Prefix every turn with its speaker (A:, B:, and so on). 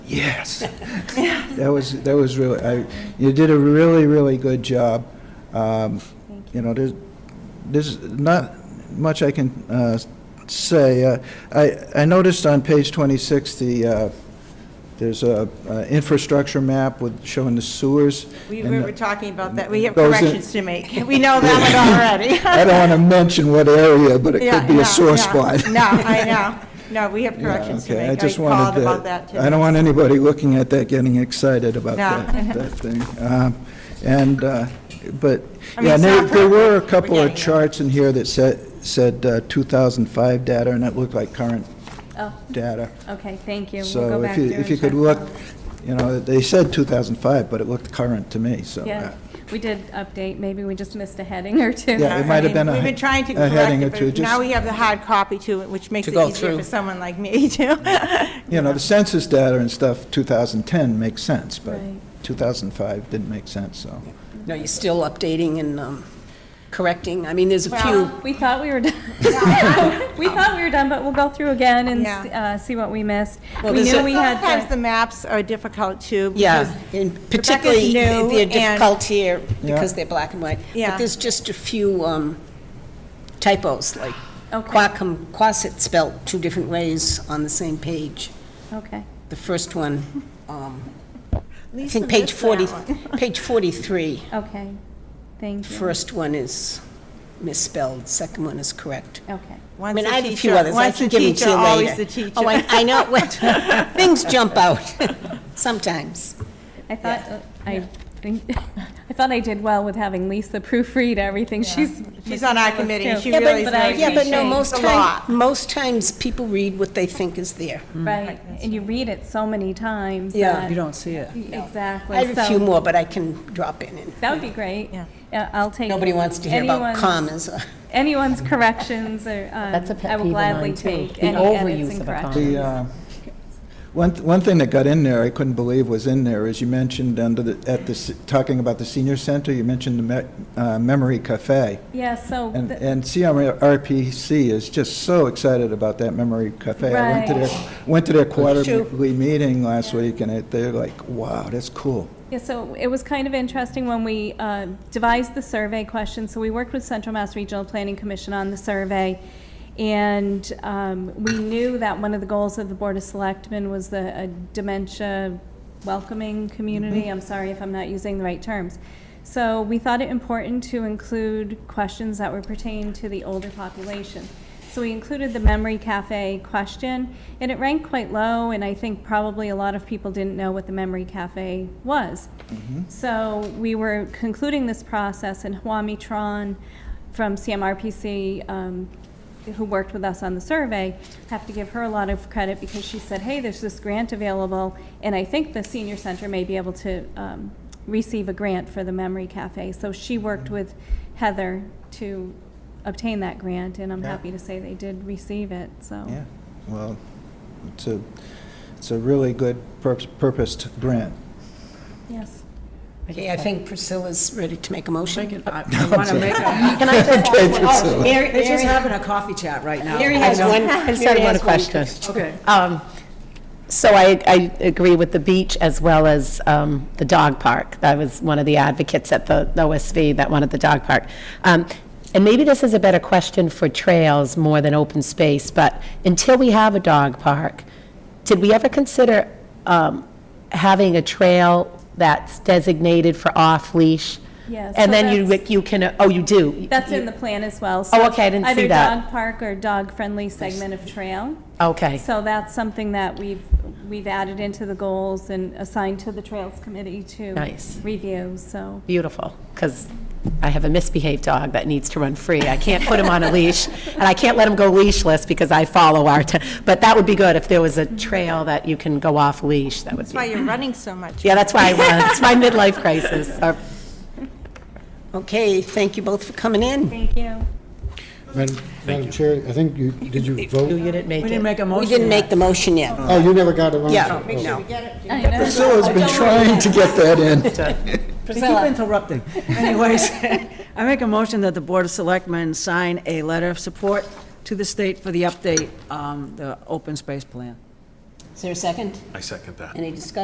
A: yes. That was, that was really, I, you did a really, really good job. Um, You know, there's, there's not much I can uh, say. Uh, I, I noticed on page 26, the, uh, there's a uh, infrastructure map with, showing the sewers.
B: We
A: and
B: we
A: the-
B: were talking about that, we have
A: Those are-
B: corrections to make, we know that one already.
A: I don't want to mention what area, but it
B: Yeah,
A: could be
B: yeah,
A: a sore
B: yeah.
A: spot.
B: No, I know, no, we have
A: Yeah,
B: corrections to
A: okay, I
B: make, I
A: just
B: called
A: wanted
B: about
A: to,
B: that
A: I
B: today.
A: don't want anybody looking at that getting excited about
B: No.
A: that, that thing. Um, And, uh, but,
B: I mean,
A: yeah,
B: it's
A: there,
B: not
A: there were a
B: perfect, we're
A: couple of
B: getting there.
A: charts in here that said, said uh, 2005 data, and it looked like current
C: Oh,
A: data.
C: okay, thank you. We'll
A: So
C: go
A: if
C: back
A: you,
C: there
A: if
C: and
A: you could
C: check
A: look,
C: that.
A: you know, they said 2005, but it looked current to me, so. uh,
C: Yeah, we did update, maybe we just missed a heading or two.
A: Yeah, it might have been a-
B: We've been trying to
A: a heading or
B: correct
A: two,
B: it, but
A: just-
B: now we have the hard copy to it, which makes
D: To
B: it
D: go
B: easier for
D: through.
B: someone like me to.
A: You know, the census data and stuff, 2010 makes sense, but
C: Right.
A: 2005 didn't make sense, so.
D: No, you're still updating and um, correcting. I mean, there's a few,
B: Well-
C: Oh, We thought we were done. We thought we were done, but we'll go through again and s-
B: Yeah.
C: uh, see what we missed.
D: Well,
C: We
D: there's
C: knew
D: a-
C: we had
B: Sometimes the
C: the,
B: maps are difficult too.
D: yeah,
B: because
D: and particularly
B: new
D: they're
B: and-
D: difficult here
A: Yeah.
D: because they're black and white.
B: Yeah.
D: But there's just a few um, typos, like
C: Okay.
D: Quacum, Quasit spelled two different ways on the same page.
C: okay,
D: The first one, um, I
B: Lisa
D: think page
B: missed that
D: 40,
B: one.
D: page 43,
C: okay, thank you.
D: first one is misspelled, second one is correct.
C: Okay,
D: I
B: Once
D: mean,
B: the
D: I have a few
B: teacher-
D: others, I
B: once
D: can
B: the
D: give them to
B: teacher,
D: you later.
B: Always the teacher.
D: Oh, I, I know, what, things jump out, sometimes.
C: I thought, uh, I think, I thought I did well with having Lisa proofread everything. She's.
B: She's on our committee, and she
C: Yeah, but-
B: really is
C: but I
B: very
D: Yeah, but no,
C: appreciate-
D: most
B: It's a lot.
D: times, most times, people read what they think is there.
C: Right, and you read it so many times.
D: Yeah.
C: that-
E: You don't see it.
C: Exactly.
D: I have a few
C: so-
D: more, but I can drop in, and
C: That would be great.
B: Yeah.
C: Yeah, I'll take.
D: nobody wants to hear about
C: anyone's-
D: commas.
C: Anyone's corrections or, um,
F: That's a
C: I
F: pet
C: will
F: peeve of
C: gladly
F: mine, too,
C: take
F: the
C: any edits and
F: overuse of a
C: corrections.
F: comma.
A: The, uh, one, one thing that got in there, I couldn't believe was in there, is you mentioned under the, at the, s- talking about the senior center, you mentioned the me- uh, Memory Cafe.
C: Yeah, so,
A: And,
C: th-
A: and CMRPC is just so excited about that Memory Cafe. I went to their, went to their quarterly meeting last week, and it- they're like, wow, that's cool.
C: yeah, so it was kind of interesting when we uh, devised the survey question. So we worked with Central Mass Regional Planning Commission on the survey. And um, we knew that one of the goals of the Board of Selectmen was the uh, dementia welcoming community. I'm sorry if I'm not using the right terms. So we thought it important to include questions that were pertaining to the older population. So we included the Memory Cafe question, and it ranked quite low, and I think probably a lot of people didn't know what the Memory Cafe was. So we were concluding this process, and Huami Tron from CMRPC, um, who worked with us on the survey, have to give her a lot of credit because she said, hey, there's this grant available, and I think the senior center may be able to um, receive a grant for the Memory Cafe. So she worked with Heather to obtain that grant, and I'm
A: Yeah.
C: happy to say they did receive it, so.
A: Yeah, well, it's a, it's a really good pur- purposed grant.
C: Yes.
D: Okay, I think Priscilla's ready to make a
E: Make
D: motion.
E: it- I want to make a,
D: Can I just
A: Okay,
D: ask
A: Priscilla.
D: one? Mary,
E: they're
D: Mary-
E: just having a coffee chat right now.
D: Mary has one.
F: I just
D: Mary
F: had one
D: has
F: question.
E: Okay.
F: Um, So I, I agree with the beach as well as um, the dog park. I was one of the advocates at the the OSV that wanted the dog park. Um, And maybe this is a better question for trails more than open space, but until we have a dog park, did we ever consider um, having a trail that's designated for off-leash?
C: Yeah, so
F: And then you,
C: that's-
F: you can, oh, you do?
C: That's in the plan as well. so
F: Oh, okay, I didn't see that.
C: Either dog park or dog-friendly segment of trail.
F: Okay.
C: So that's something that we've, we've added into the goals and assigned to the Trails Committee to
F: Nice.
C: review, so.
F: beautiful, because I have a misbehaved dog that needs to run free. I can't put him on a leash, and I can't let him go leashless because I follow our, t- but that would be good if there was a trail that you can go off leash, that would
B: That's why
F: be.
B: you're running so much.
F: Yeah, that's why I run, it's my midlife crisis. Or-
D: Okay, thank you both for coming in.
C: Thank you.
G: Madam Madam Chair, I think you, did you
F: You
G: vote?
F: didn't
E: We
F: make
E: didn't
F: it.
E: make a motion
D: We didn't
E: yet.
D: make the motion yet.
G: Oh, you never got around to
D: Yeah,
G: it.
D: no.
A: Priscilla's been trying to get that in.
E: They keep interrupting. Anyways, I make a motion that the Board of Selectmen sign a letter of support to the state for the update, um, the open space plan.
H: Is there a second?
I: I second that.
H: Any discussion